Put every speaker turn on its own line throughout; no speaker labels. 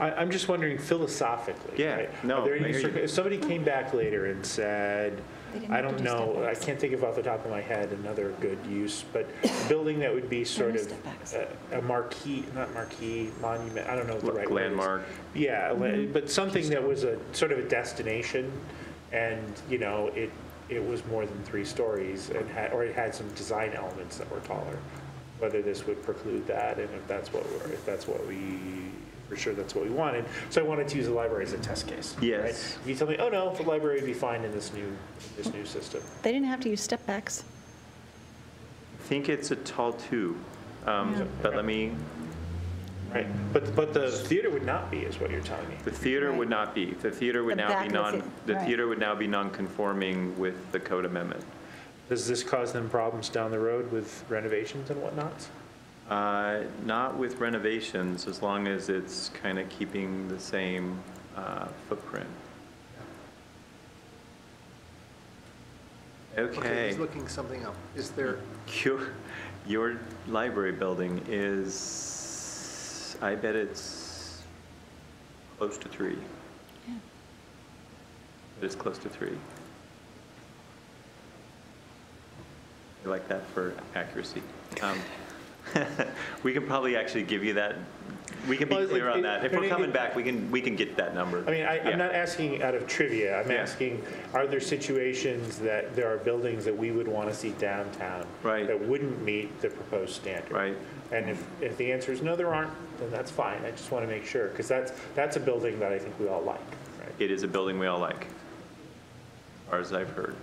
I, I'm just wondering philosophically.
Yeah,
right?
no,
Are there any
I hear you.
circ- If somebody came back later and said,
They didn't
I
have
don't
to do
know, I
step-backs.
can't think of off the top of my head another good use, but a building that would be sort
no
of
step-backs.
a a marquee, not marquee, monument, I don't know what the right word is.
Landmark.
Yeah, la- but something that was a, sort of a destination, and, you know, it, it was more than three stories, and had, or it had some design elements that were taller. Whether this would preclude that, and if that's what, we're if that's what we, for sure that's what we wanted. So I wanted to use the library as a test case. right?
Yes.
If you tell me, oh, no, the library would be fine in this new, this new system.
They didn't have to use step backs.
I think it's a tall two, um, but let me,
Right, but, but the theater would not be, is what you're telling me.
the theater would not be, the theater would
The
now
back
be
of the
non,
thea-
the
right.
theater would now be non-conforming with the code amendment.
Does this cause them problems down the road with renovations and whatnot?
Uh, Not with renovations, as long as it's kind of keeping the same uh, footprint.
Okay,
Okay,
he's looking something up. Is there,
your, your library building is, I bet it's close to three. It's close to three. I like that for accuracy. Um, We can probably actually give you that, we can be
Well, it-
clear on
it-
that. If
it-
we're
it-
coming back, we can, we can get that number.
I mean, I,
Yeah.
I'm not asking out of trivia. I'm
Yeah.
asking, are there situations that there are buildings that we would want to see downtown
Right.
that wouldn't meet the proposed standard?
Right.
And if, if the answer is no, there aren't, then that's fine. I just want to make sure because that's that's a building that I think we all like. Right.
It is a building we all like, as far as I've heard.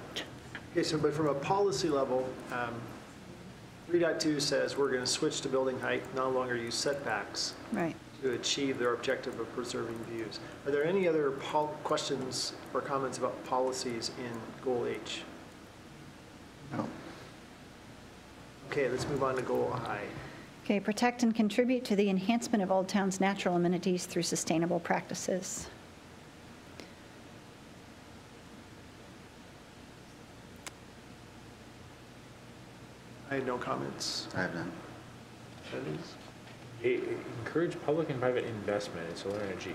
okay, so, but from a policy level, um, 3.2 says we're going to switch to building height, no longer use setbacks
Right.
to achieve their objective of preserving views. Are there any other pol- questions or comments about policies in Goal H? No. Okay, let's move on to Goal I.
Okay, protect and contribute to the enhancement of Old Town's natural amenities through sustainable practices.
I have no comments.
I have none.
It, it encourage public and private investment in solar energy.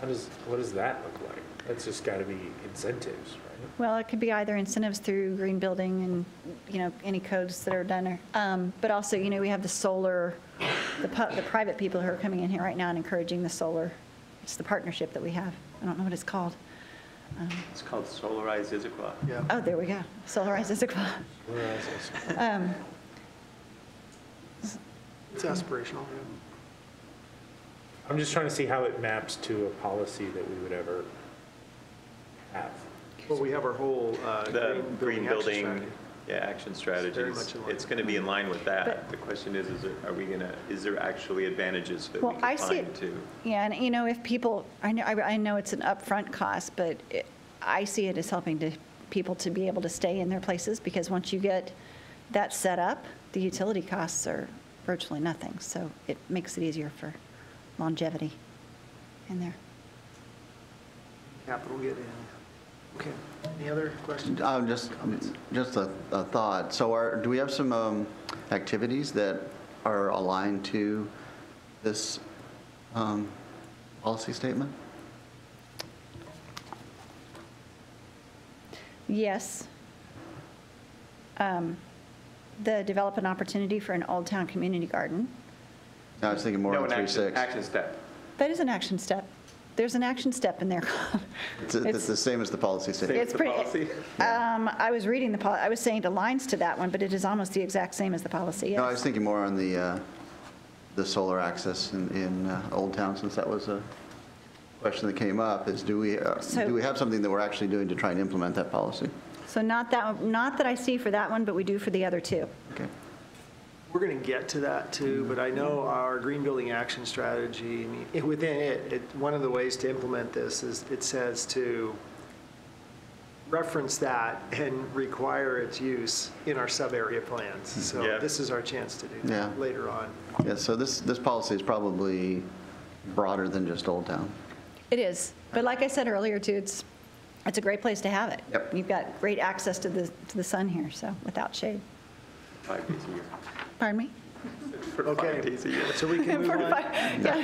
How does what does that look like? That's just got to be incentives, right?
Well, it could be either incentives through green building and, you know, any codes that are done, or- um, but also, you know, we have the solar, the pu- the private people who are coming in here right now and encouraging the solar. It's the partnership that we have. I don't know what it's called. Um,
It's called Solarize Issaquah.
Yeah.
Oh, there we go. Solarize Issaquah.
Whereas it's-
Um,
It's aspirational.
I'm just trying to see how it maps to a policy that we would ever have.
Well, we have our whole uh,
The green
action
building,
strategy.
yeah, action
very
strategies,
much in line.
it's going to be in line with that.
But-
The question is, is it- are we going to, is there actually advantages that we
Well, I
can
see
find
it,
to?
yeah, and you know, if people, I know, I I know it's an upfront cost, but it- I see it as helping to, people to be able to stay in their places, because once you get that set up, the utility costs are virtually nothing, so it makes it easier for longevity in there.
Capital get in. Okay, any other questions?
Um, Just, just a a thought. So are, do we have some um, activities that are aligned to this um, policy statement?
Yes. Um, The develop an opportunity for an Old Town Community Garden.
No, I was thinking more
No, an
on
action,
3.6.
action step.
That is an action step. There's an action step in there.
It's it's the same as the policy statement.
It's
the
pretty,
policy.
um, I was reading the, pol- I was saying the lines to that one, but it is almost the exact same as the policy,
No, I was
yes.
thinking more on the, uh, the solar access in, in uh, Old Town, since that was a question that came up, is do we, uh,
So-
do we have something that we're actually doing to try and implement that policy?
So not that, one- not that I see for that one, but we do for the other two.
Okay.
We're going to get to that too, but I know our green building action strategy, I mean, it- within it, it, one of the ways to implement this is, it says to reference that and require its use in our sub-area plans. So
Hmm, Yeah.
this is our chance to do
Yeah.
that later on.
Yeah, so this, this policy is probably broader than just Old Town.
It is, but like I said earlier, too, it's, it's a great place to have it.
Yep.
You've got great access to the, to the sun here, so, without shade.
Five days a year.
Pardon me?
For
Okay.
five days a year.
So we can move
For
on.
fi- Yeah,